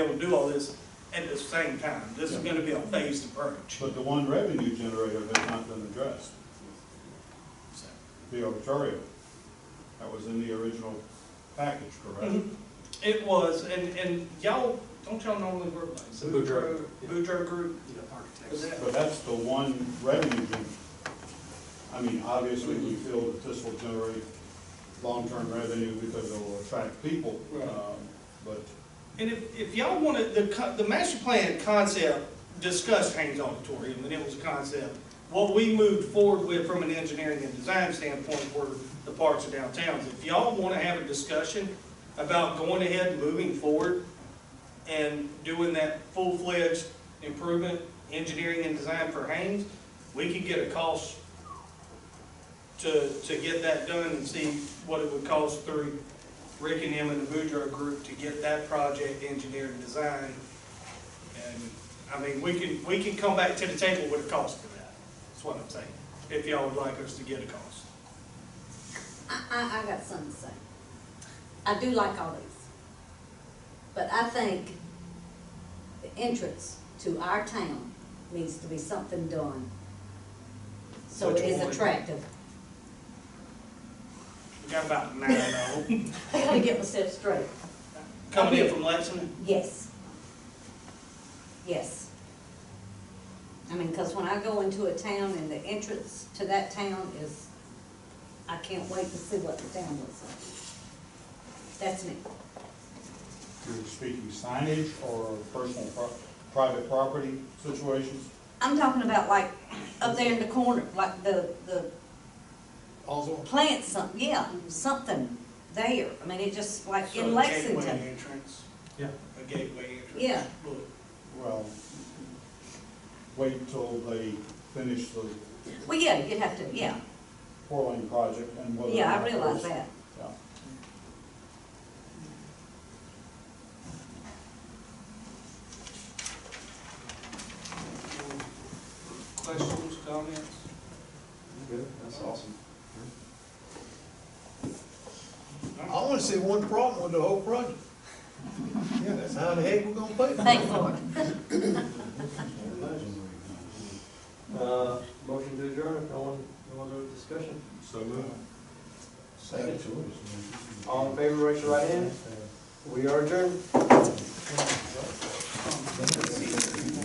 do all this at the same time. This is Yeah. gonna be a phased approach. But the one revenue generator has not been addressed, So, the arbitrario. That was in the original package, correct? Mhm. Mm-hmm. It was, and, and y'all, don't y'all normally work like this? Boudreaux, yeah. Boudreaux Group, is architects. that? But that's the one revenue gen, I mean, obviously, we Mm-hmm. feel that this will generate long-term revenue because it'll attract people. Right. um, But And if, if y'all wanted, the, co- the master plan concept discussed Haynes Auditorium, and it was a concept. What we moved forward with from an engineering and design standpoint were the parks and downtowns. If y'all wanna have a discussion about going ahead, and moving forward, and doing that full-fledged improvement, engineering and design for Haynes, we could get a cost to, to get that done and see what it would cost through Rick and him and the Boudreaux group to get that project engineered and designed. And, I mean, we can, we can come back to the table with a cost for that, that's what I'm saying, if y'all would like us to get a cost. I, I, I got something to say. I do like all these. But I think the entrance to our town needs to be something done. So Which it is one? attractive. We got about nine of them, I gotta get myself straight. coming in from Lexington. Yes. Yes. I mean, cause when I go into a town and the entrance to that town is, I can't wait to see what the town looks like. That's me. you're speaking signage or personal, pro- private property situations? I'm talking about like up there in the corner, like the, the plant some, yeah, something there. I mean, it just like So in a gateway Lexington. entrance. Yeah. A gateway entrance. Yeah. Look, Well, wait until they finish the Well, yeah, you'd have to, yeah, four lane project and whether. or yeah, uh, I not realize those- that. Yeah. Questions, comments? Good, that's awesome. I only see one problem with the whole project. Yeah, that's how the heck we're gonna pay for Thank it. Lord. Uh, motion to adjourn, no one, no other discussion? So moved. Second. All in favor, raise your right hand. We are adjourned.